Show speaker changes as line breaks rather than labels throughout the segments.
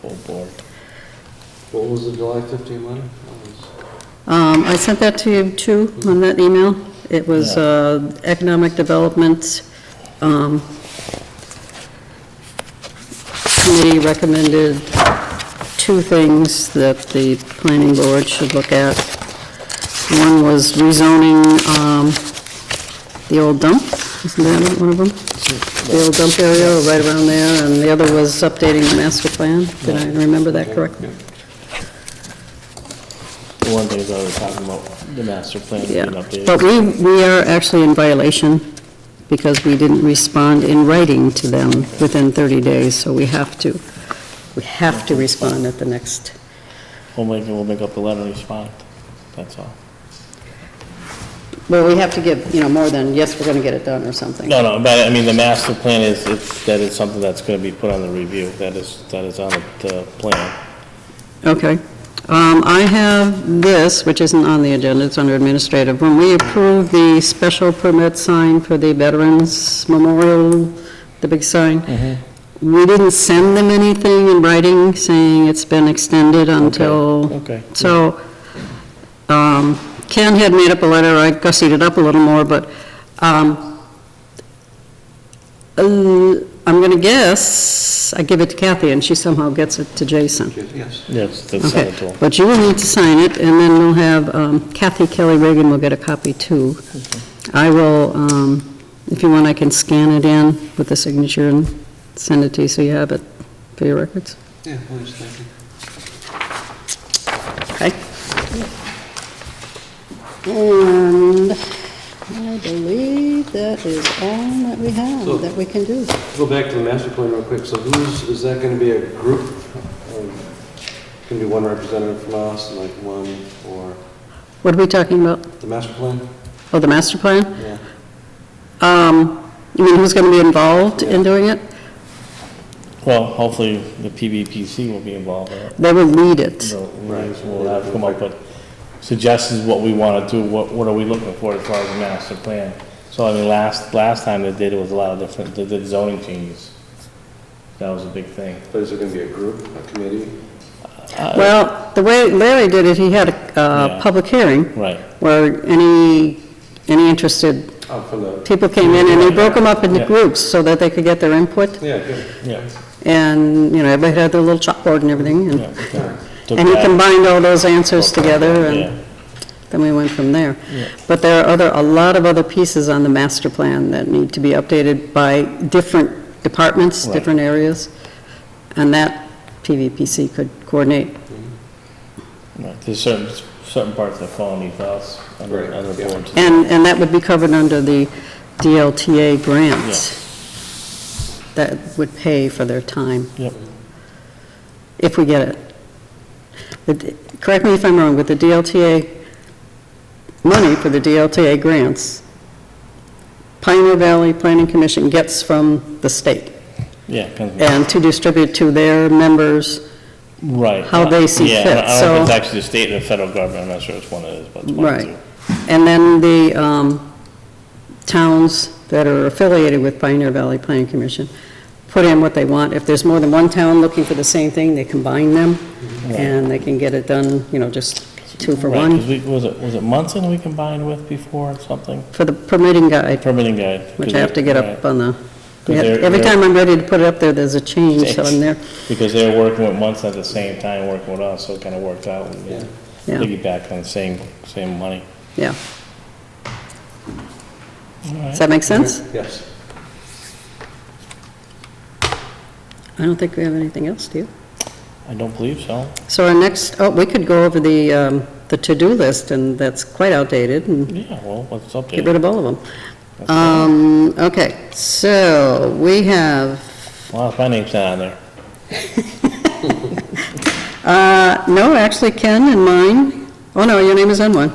full board.
What was the July 15 letter?
Um, I sent that to you too, on that email. It was
Yeah.
uh, economic development, um, committee recommended two things that the planning board should look at. One was rezoning, um, the old dump, isn't that one of them? The old dump area, right around there, and the other was updating the master plan. Did I remember that correctly?
The one thing is I was talking about the master plan being
Yeah,
updated.
but we, we are actually in violation because we didn't respond in writing to them within 30 days, so we have to, we have to respond at the next,
Homeland will make up the letter and respond, that's all.
well, we have to give, you know, more than, yes, we're going to get it done or something.
No, no, but I mean, the master plan is, it's, that is something that's gonna be put on the review, that is, that is on the uh, plan.
Okay. Um, I have this, which isn't on the agenda, it's under administrative. When we approved the special permit sign for the Veterans Memorial, the big sign, we didn't send them anything in writing saying it's been extended until
Okay.
so, um, Ken had made up a letter, I gussied it up a little more, but, um, uh, I'm gonna guess, I give it to Kathy, and she somehow gets it to Jason.
Yes.
Yes, that's on
Okay,
the tool.
but you will need to sign it, and then we'll have, um, Kathy Kelly Reagan will get a copy too. I will, um, if you want, I can scan it in with the signature and send it to you so you have it for your records.
Yeah, please, thank you.
Okay. And I believe that is all that we have, that we can do.
Go back to the master plan real quick. So who's, is that going to be a group? Um, Can be one representative from us and like one for
What are we talking about?
the master plan?
Oh, the master plan?
Yeah.
Um, you mean who's gonna be involved in doing it?
Well, hopefully, the PVPC will be involved in it.
They will lead it.
So We'll have to come up with suggestions what we want to do, what, what are we looking for as far as a master plan. So I mean, last, last time they did it was a lot of different, they did zoning changes. That was a big thing.
But is it going to be a group, a committee?
Well, the way Larry did it, he had a, uh
Yeah.
public hearing
Right,
where any, any interested
Oh, from the,
people came in and he broke them up into
Yeah.
groups so that they could get their input.
yeah, good.
yeah.
And, you know, everybody had their little chalkboard and everything and
yeah. Took
And he
that,
combined all those answers together,
yeah.
and then we went from there. But there are other, a lot of other pieces on the master plan that need to be updated by different departments,
Right.
different areas, and that PVPC could coordinate.
Right, There's certain, certain parts that fall underneath us, under,
Right,
under
yeah.
boards.
And, and that would be covered under the DLTA grants that would pay for their time,
Yep,
if we get it. The- Correct me if I'm wrong, but the DLTA, money for the DLTA grants, Pioneer Valley Planning Commission gets from the state,
yeah. comes-
and to distribute to their members,
Right.
how they see
Yeah, I don't- I
fit,
don't know if
so-
it's actually the state or the federal government, I'm not sure which one it is, but it's one of the
right. And then the um, towns that are affiliated with Pioneer Valley Planning Commission put in what they want. If there's more than one town looking for the same thing, they combine them, and they can get it done, you know, just two
two.
for
Right, 'cause
one,
we- Was it, was it Munson we combined with before or something?
for the permitting guide.
Permitting guide.
Which I have to get
Right.
up on the,
Because
yeah,
they're-
every
they're-
time I'm ready to put it up there, there's a change, so I'm there.
Because they were working with months at the same time, working with us, so it kind of worked out. and
Yeah.
Yeah.
Piggyback on the same, same money.
Yeah. Does that make sense?
Yes.
I don't think we have anything else, do you?
I don't believe so.
So our next, oh, we could go over the, um, the to-do list, and that's quite outdated, and
Yeah, well, let's
get
update.
rid of all of them. Um, okay, so we have,
Well, my name's not on there.
uh, no, actually Ken and mine, oh no, your name is on one.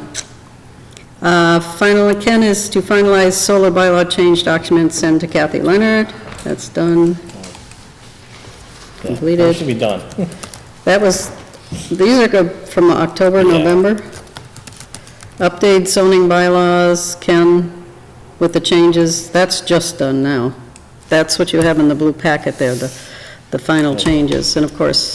Uh, finally, Ken is to finalize solar bylaw change document, send to Kathy Leonard, that's done.
Yeah,
Completed.
That should be done.
That was, these are good from October,
Yeah.
November. Update zoning bylaws, Ken, with the changes, that's just done now. That's what you have in the blue packet there, the, the final changes. And of course,